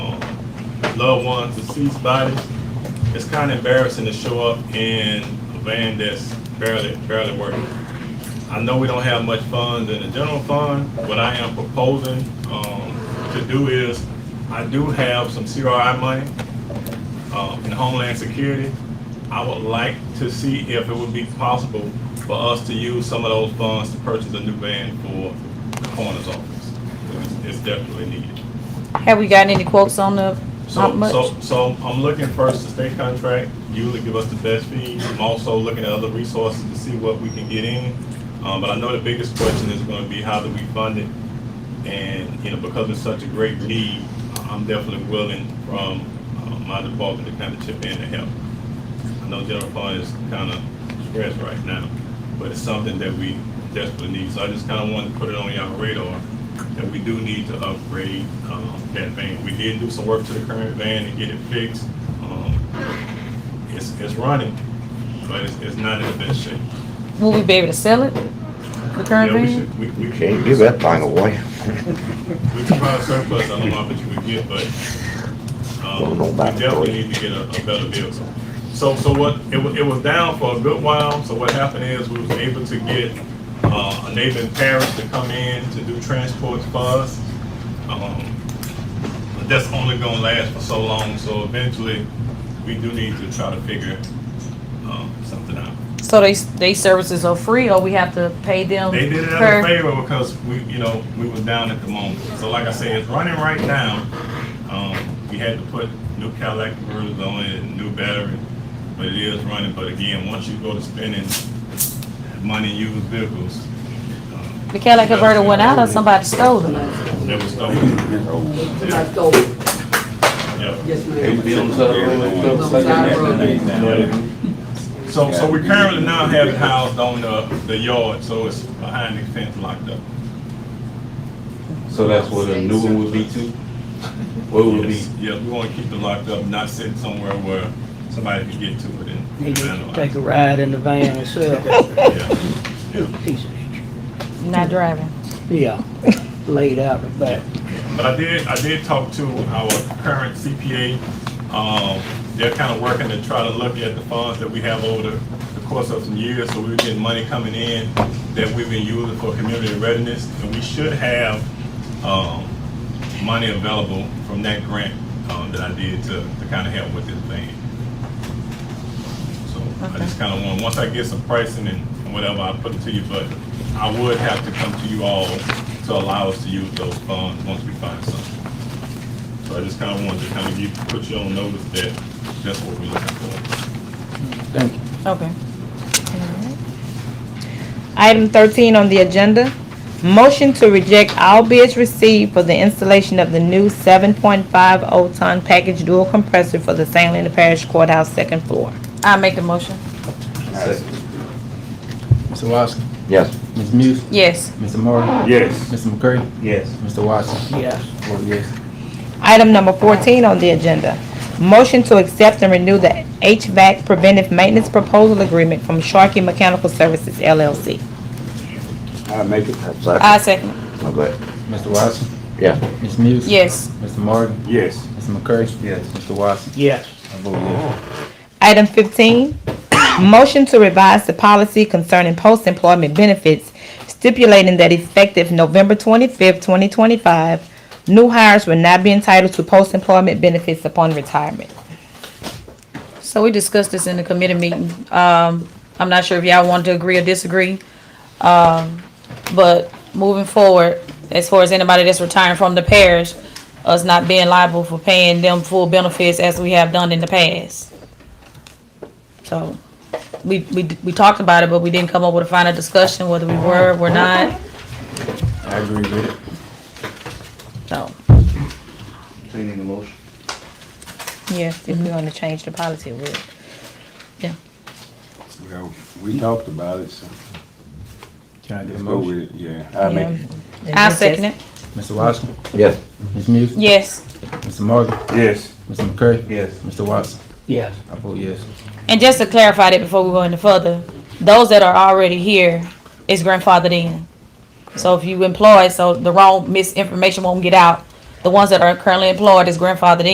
loved ones, deceased bodies. It's kind of embarrassing to show up in a van that's barely, barely working. I know we don't have much funds in the general fund. What I am proposing, um, to do is, I do have some CRI money uh, in Homeland Security. I would like to see if it would be possible for us to use some of those funds to purchase a new van for the coroner's office. It's- It's definitely needed. Have we gotten any quotes on the, how So, much? so, so I'm looking first to state contract, usually give us the best fees. I'm also looking at other resources to see what we can get in. Um, but I know the biggest question is gonna be how do we fund it? And, you know, because it's such a great need, I'm definitely willing from, uh, my department to kind of chip in to help. I know general fund is kind of stressed right now, but it's something that we desperately need. So I just kind of wanted to put it on y'all radar that we do need to upgrade um, that van. We did do some work to the current van and get it fixed. Um, It's, it's running, but it's, it's not in the best shape. Will we be able to sell it? The current Yeah, we van? should- we- we- Can't give that thing away. We can probably surplus, I don't know how much we get, but, um, Don't know we about definitely three. need to get a, a better vehicle. So, so what, it was, it was down for a good while, so what happened is we was able to get, uh, a neighboring parish to come in to do transports for us. Um, but that's only gonna last for so long, so eventually, we do need to try to figure, um, something out. So they, they services are free or we have to pay them? They did it per- as a favor because we, you know, we was down at the moment. So like I said, it's running right now. Um, we had to put new Cadillac converters on it, and new battery, but it is running. But again, once you go to spending money in used vehicles, um, The Cadillac converter went out or somebody stole it? that was stolen. Somebody stole it. Yep. oh, Yes, Eight ma'am. bills up, Those side roads. So, so we currently now have it housed on the, the yard, so it's behind the fence locked up. So that's what a new one would be too? What would be? Yes, yes, we want to keep it locked up, not sitting somewhere where somebody could get to it and. He needs to vandalize take it. a ride in the van himself. Yeah. Piece of shit. Not driving. Yeah, laid out the back. But I did, I did talk to our current CPA. Um, they're kind of working to try to look at the funds that we have over the, the course of some years. So we we're getting money coming in that we've been using for community readiness. And we should have, um, money available from that grant, um, that I did to, to kind of help with this thing. So I just kind of want, once I get some pricing and and whatever, I'll put it to you, but I would have to come to you all to allow us to use those funds once we find something. So I just kind of wanted to kind of give, put you on notice that that's what we're looking for. Thank you. Okay. Item thirteen on the agenda, motion to reject all bids received for the installation of the new seven point five oh ton package dual compressor for the St. Helena Parish Courthouse second floor. I make the motion. Mr. Wowski, Yes. Ms. Muse, Yes. Mr. Morgan, Yes. Mr. McCurry, Yes. Mr. Watson. Yes, Vote yes. Item number fourteen on the agenda, motion to accept and renew the HVAC preventive maintenance proposal agreement from Sharkey Mechanical Services LLC. I make it. I Second. second. Oh, go ahead. Mr. Watson, Yeah. Ms. Muse. Yes. Mr. Morgan, Yes. Mr. McCurry. Yes. Mr. Watson. yes, I vote yes. Item fifteen, motion to revise the policy concerning post-employment benefits stipulating that effective November twenty-fifth, twenty twenty-five, new hires will not be entitled to post-employment benefits upon retirement. So we discussed this in the committee meeting. Um, I'm not sure if y'all want to agree or disagree. Um, but moving forward, as far as anybody that's retiring from the parish, us not being liable for paying them full benefits as we have done in the past. So, we, we, we talked about it, but we didn't come up with a final discussion whether we were, were not, I agree with it. so, So you need a motion? Yes, if we want to change the policy, we yeah. Well, we talked about it, so Can I get a let's go motion? with it, yeah. I Yeah. make it. I second it, Mr. Watson, Yes. Ms. Muse. yes. Mr. Morgan, Yes, Mr. McCurry. Yes. Mr. Watson. yes. I vote yes. And just to clarify that before we go any further, those that are already here is grandfathered in. So if you employ, so the wrong misinformation won't get out. The ones that are currently employed is grandfathered in.